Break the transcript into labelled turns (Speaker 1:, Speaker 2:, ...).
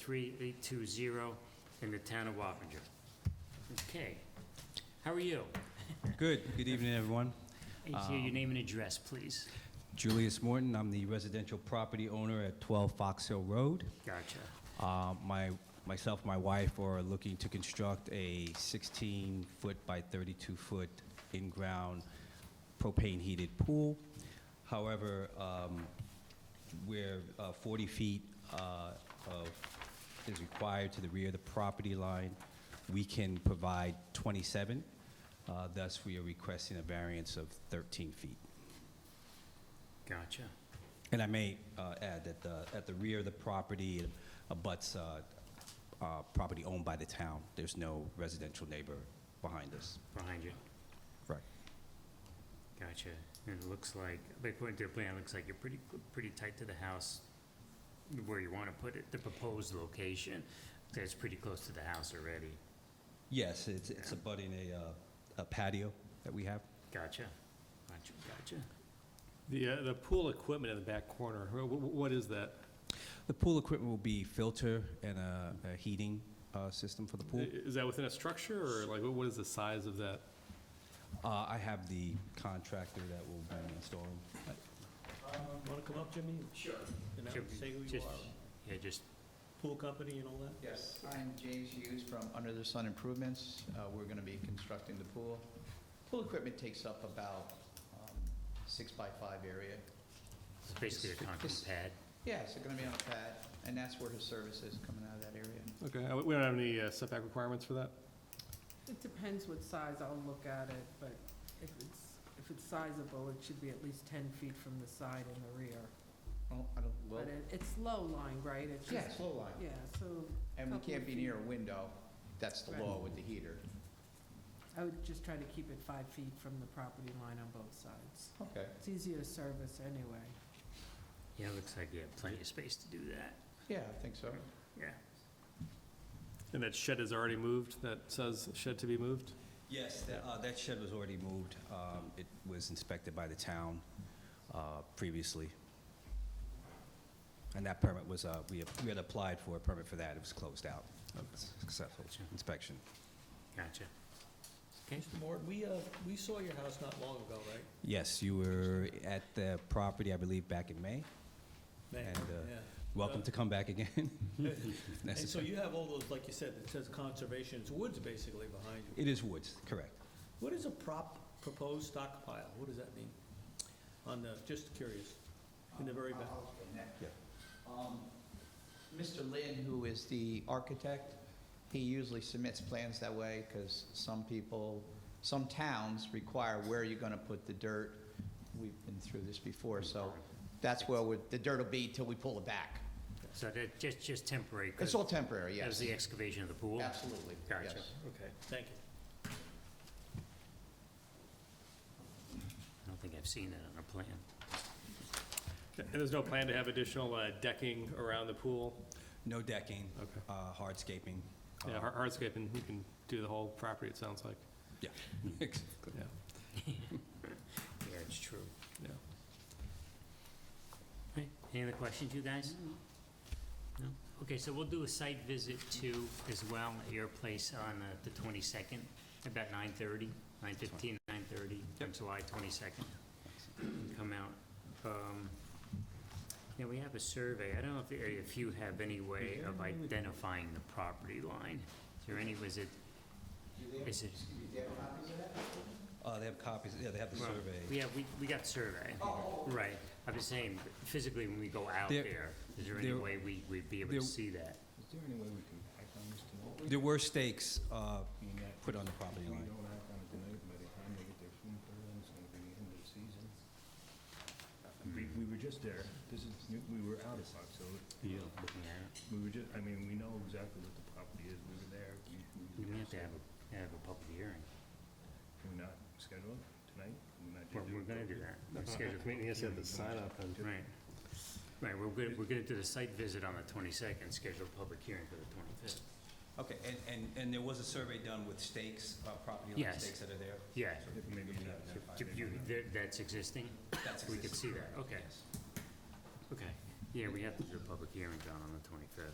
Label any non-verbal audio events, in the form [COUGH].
Speaker 1: 1403820 in the town of Wappinger. Okay. How are you?
Speaker 2: Good, good evening, everyone.
Speaker 1: I hear your name and address, please.
Speaker 2: Julius Morton, I'm the residential property owner at 12 Fox Hill Road.
Speaker 1: Gotcha.
Speaker 2: Uh, My, myself, my wife are looking to construct a 16-foot by 32-foot in-ground propane-heated pool. However, um, where uh, 40 feet uh, of, is required to the rear of the property line, we can provide 27. Uh, Thus, we are requesting a variance of 13 feet.
Speaker 1: Gotcha.
Speaker 2: And I may uh, add that the, at the rear of the property it abuts uh, uh, property owned by the town. There's no residential neighbor behind us.
Speaker 1: Behind you.
Speaker 2: Right.
Speaker 1: Gotcha. And it looks like, but according to your plan, it looks like you're pretty, pretty tight to the house where you want to put it, the proposed location. That's pretty close to the house already.
Speaker 2: Yes, it's, it's abutting a, uh, a patio that we have.
Speaker 1: Gotcha. Gotcha, gotcha.
Speaker 3: The, uh, the pool equipment in the back corner, wh- wh- what is that?
Speaker 2: The pool equipment will be filter and a, a heating uh, system for the
Speaker 3: I-
Speaker 2: pool.
Speaker 3: Is that within a structure, or like, wh- what is the size of that?
Speaker 2: Uh, I have the contractor that will be installing.
Speaker 4: Want to Um, come up, Jimmy? Sure. And
Speaker 1: Sure.
Speaker 4: say who you
Speaker 1: Just-
Speaker 4: are,
Speaker 1: Yeah, just
Speaker 4: pool company and all that?
Speaker 5: Yes, I'm James Hughes from Under the Sun Improvements. Uh, We're going to be constructing the pool. Pool equipment takes up about um, six by five area.
Speaker 1: It's basically a concrete pad.
Speaker 5: Yeah, so going to be on a pad, and that's where his service is coming out of that area.
Speaker 3: Okay, uh, we don't have any uh, setback requirements for that?
Speaker 6: It depends what size, I'll look at it, but if it's, if it's sizable, it should be at least ten feet from the side and the rear.
Speaker 5: Oh, I don't, well,
Speaker 6: But it, it's low lying, right? It's
Speaker 5: yeah,
Speaker 6: just-
Speaker 5: it's low line.
Speaker 6: Yeah, so
Speaker 5: And we
Speaker 6: couple
Speaker 5: can't be
Speaker 6: feet.
Speaker 5: near a window. That's the
Speaker 6: Right.
Speaker 5: law with the heater.
Speaker 6: I would just try to keep it five feet from the property line on both sides.
Speaker 5: Okay.
Speaker 6: It's easier to service anyway.
Speaker 1: Yeah, it looks like you have plenty of space to do that.
Speaker 5: Yeah, I think so.
Speaker 1: Yeah.
Speaker 3: And that shed is already moved, that says shed to be moved?
Speaker 2: Yes, that, uh, that shed was already moved. Um, It was inspected by the town uh, previously. And that permit was, uh, we we had applied for a permit for that, it was closed out. Successful inspection.
Speaker 1: Gotcha. Okay.
Speaker 4: Mr. Morton, we, uh, we saw your house not long ago, right?
Speaker 2: Yes, you were at the property, I believe, back in May.
Speaker 4: Man,
Speaker 2: And, uh, [LAUGHS]
Speaker 4: yeah.
Speaker 2: Welcome to come back again. [LAUGHS]
Speaker 4: And so
Speaker 2: Necessary.
Speaker 4: you have all those, like you said, it says conservation, it's woods basically behind you.
Speaker 2: It is woods, correct.
Speaker 4: What is a prop, proposed stockpile? What does that mean? On the, just curious, in the very back.
Speaker 5: I'll explain that.
Speaker 2: Yeah.
Speaker 5: Um, Mr. Lynn, who is the architect, he usually submits plans that way because some people, some towns require where you're going to put the dirt. We've been through this before, so that's where we're- the dirt will be till we pull it back.
Speaker 1: So that, just, just temporary. 'cause
Speaker 5: It's all temporary,
Speaker 1: That was
Speaker 5: yes.
Speaker 1: the excavation of the pool?
Speaker 5: Absolutely,
Speaker 1: Gotcha.
Speaker 5: yes.
Speaker 4: Okay, thank you.
Speaker 1: I don't think I've seen that on a plan.
Speaker 3: And there's no plan to have additional uh, decking around the pool?
Speaker 2: No decking,
Speaker 3: Okay.
Speaker 2: uh, hardscaping.
Speaker 3: Yeah,
Speaker 2: uh,
Speaker 3: har- hardscape, and you can do the whole property, it sounds like,
Speaker 2: Yeah. [LAUGHS]
Speaker 3: yeah,
Speaker 1: Yeah, it's true.
Speaker 3: yeah.
Speaker 1: Right. Any other questions, you guys? No? Okay, so we'll do a site visit too as well at your place on uh, the 22nd, about 9:30, 9:15, 9:30, on July 22nd. Come out. Um, Yeah, we have a survey. I don't know if the- if you have any way of identifying the property line. Is there any, was it, is it
Speaker 2: Uh, They have copies, yeah, they have the
Speaker 1: Well,
Speaker 2: survey.
Speaker 1: Yeah, we, we got survey. Right. I'm just saying, physically, when we go out
Speaker 2: There-
Speaker 1: there, is there any
Speaker 2: there-
Speaker 1: way we, we'd be able to
Speaker 2: there-
Speaker 1: see that?
Speaker 7: Is there any way we can act on this tonight?
Speaker 2: There were stakes uh,
Speaker 7: Being that
Speaker 2: put on the property
Speaker 7: If we
Speaker 2: line.
Speaker 7: don't act on it tonight, by the time they get their food through, it's gonna be the end of the season. Uh, We, we were just there, this is, we were out of Fox Hill,
Speaker 1: Yeah. Looking at
Speaker 7: we were just, I mean, we know exactly what the property is, we were there.
Speaker 1: it.
Speaker 7: we-
Speaker 1: We
Speaker 7: we were
Speaker 1: may have to
Speaker 7: there,
Speaker 1: have a, have a public hearing.
Speaker 7: so Can we not schedule it tonight? Can we not
Speaker 1: Well,
Speaker 7: do
Speaker 1: we're gonna
Speaker 7: [LAUGHS]
Speaker 1: do that. We're scheduled- Right. Right, we're good, we're gonna do the site visit on the twenty-second, schedule a public hearing for the twenty-fifth.
Speaker 2: Okay, and, and, and there was a survey done with stakes, uh, property line
Speaker 1: Yes.
Speaker 2: stakes that are there?
Speaker 1: Yeah,
Speaker 7: Maybe not.
Speaker 1: Do you- that- that's existing?
Speaker 2: That's
Speaker 1: We could
Speaker 2: existing.
Speaker 1: see that, okay. Okay. Yeah, we have to do a public hearing, John, on the twenty-fifth.